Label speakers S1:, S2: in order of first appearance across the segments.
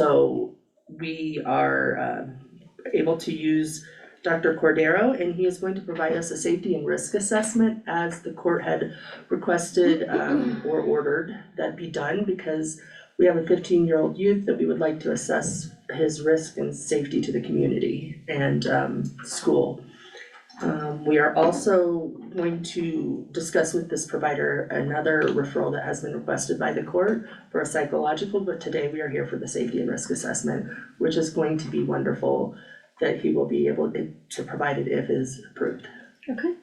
S1: So we are um, able to use Dr. Cordero and he is going to provide us a safety and risk assessment as the court had requested um, or ordered that be done because we have a fifteen-year-old youth that we would like to assess his risk and safety to the community and um, school. Um, we are also going to discuss with this provider another referral that has been requested by the court for a psychological, but today we are here for the safety and risk assessment, which is going to be wonderful that he will be able to to provide it if is approved.
S2: Okay.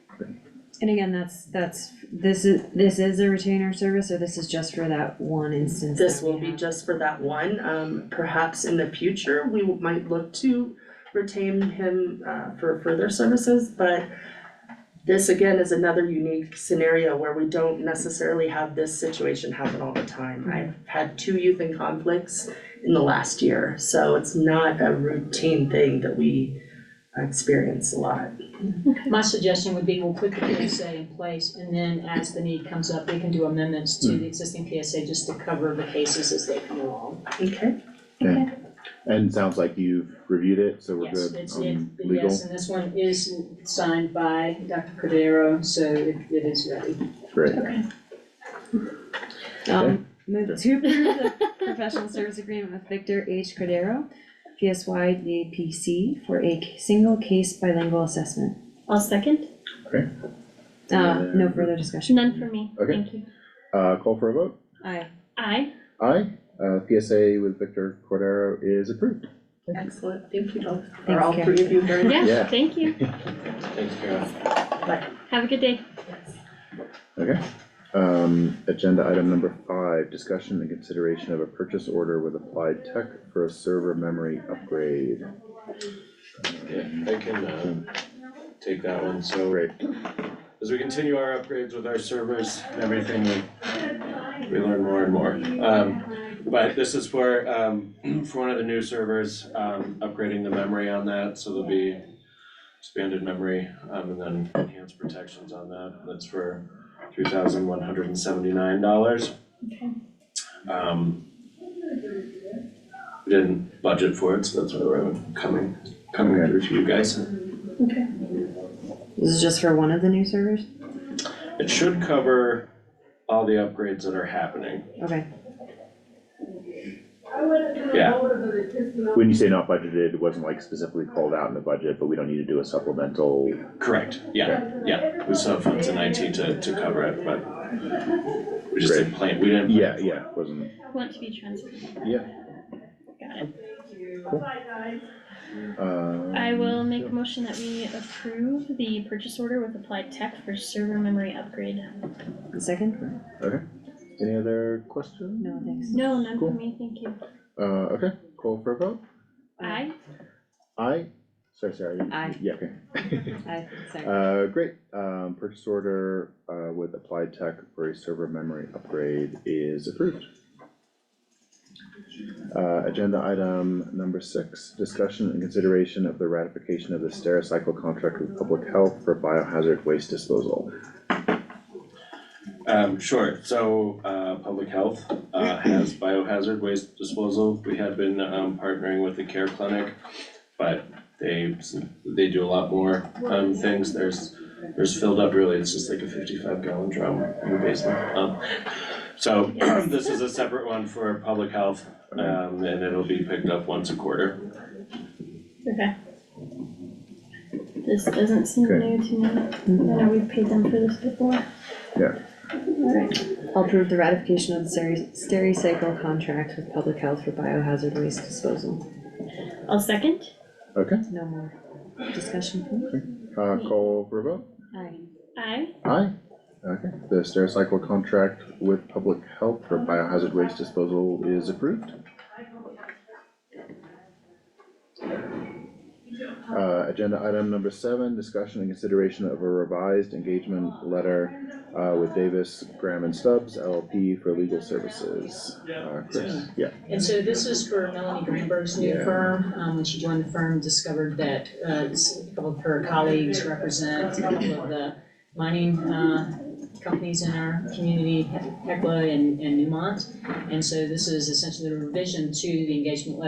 S2: And again, that's, that's, this is, this is a retainer service, or this is just for that one instance
S1: This
S2: that
S1: will
S2: we
S1: be
S2: have?
S1: just for that one, um, perhaps in the future, we might look to retain him, uh, for further services, but this again is another unique scenario where we don't necessarily have this situation happen all the time. I've had two youth in conflicts in the last year, so it's not a routine thing that we experience a lot.
S3: My suggestion would be we'll put the PSA in place and then as the need comes up, we can do amendments to
S4: Mm.
S3: the existing PSA just to cover the cases as they come along.
S1: Okay,
S4: And sounds like you've reviewed it, so we're
S3: Yes,
S4: good
S3: it's, uh, it,
S4: on legal.
S3: yes, and this one is signed by Dr. Cordero, so it, it is ready.
S4: Great,
S2: Um, move to approve the professional service agreement with Victor H. Cordero, PSY DAPC, for a c- single case bilingual assessment.
S5: I'll second,
S2: Uh, no
S4: Yeah.
S2: further discussion.
S5: none for me,
S4: Okay.
S5: thank you.
S4: uh, call for a vote,
S2: Aye.
S5: Aye,
S4: aye, uh, PSA with Victor Cordero is approved.
S1: excellent, thank you both, for
S2: Thanks,
S1: all
S2: Karen.
S1: three of you very much.
S4: Yeah.
S5: yeah, thank you,
S6: Thanks, Karen.
S5: have a good day.
S4: Okay, um, agenda item number five, discussion and consideration of a purchase order with Applied Tech for a server memory upgrade.
S6: Yeah, I can, uh, take that one, so.
S4: Great.
S6: As we continue our upgrades with our servers and everything, we, we learn more and more. Um, but this is for, um, for one of the new servers, um, upgrading the memory on that, so there'll be expanded memory, um, and then enhanced protections on that, that's for three thousand one hundred and seventy-nine dollars. Um, we didn't budget for it, so that's why we're coming, coming through to you guys.
S2: This is just for one of the new servers?
S6: It should cover all the upgrades that are happening.
S2: Okay,
S6: Yeah,
S4: When you say not budgeted, it wasn't like specifically called out in the budget, but we don't need to do a supplemental,
S6: correct, yeah, yeah. We still have funds in IT to, to cover it, but we just didn't plan, we didn't. plan
S4: yeah,
S6: for it.
S4: yeah, wasn't,
S5: Want to be transparent,
S4: yeah,
S5: got it.
S4: um.
S5: I will make a motion that we approve the purchase order with Applied Tech for server memory upgrade.
S2: a second?
S4: Any other questions?
S2: No, thanks.
S5: No, none
S4: Cool.
S5: for me, thank you.
S4: Uh, okay, call for a vote,
S5: Aye,
S4: aye, sorry, sorry.
S2: Aye.
S4: Yeah, okay.
S2: Aye, second.
S4: Uh, great, um, purchase order, uh, with Applied Tech for a server memory upgrade is approved. Uh, agenda item number six, discussion and consideration of the ratification of the Stericycle contract with Public Health for biohazard waste disposal.
S6: Um, sure, so, uh, Public Health, uh, has biohazard waste disposal. We have been, um, partnering with the Care Clinic, but they, they do a lot more, um, things. There's, there's filled up really, it's just like a fifty-five gallon drum in the basement. Um, So this is a separate one for Public Health, um, and it'll be picked up once a quarter.
S5: okay. This doesn't seem
S4: Okay.
S5: new to me, I know we've paid them for this before.
S4: Yeah.
S5: Alright,
S2: I'll approve the ratification of the Steri- Stericycle contract with Public Health for biohazard waste disposal.
S5: I'll second,
S4: Okay,
S2: No more discussion?
S4: uh, call for a vote,
S2: Aye.
S5: aye,
S4: aye, okay, the Stericycle contract with Public Health for biohazard waste disposal is approved. Uh, agenda item number seven, discussion and consideration of a revised engagement letter, uh, with Davis, Graham and Stubbs LLP for legal services. Uh, Chris, yeah,
S3: And so this is for Melanie Greenberg's new
S4: Yeah.
S3: firm, um, when she joined the firm, discovered that, uh, s- a couple of her colleagues represent a couple of the mining, uh, companies in our community, Hecla and, and Newmont. And so this is essentially a revision to the engagement letter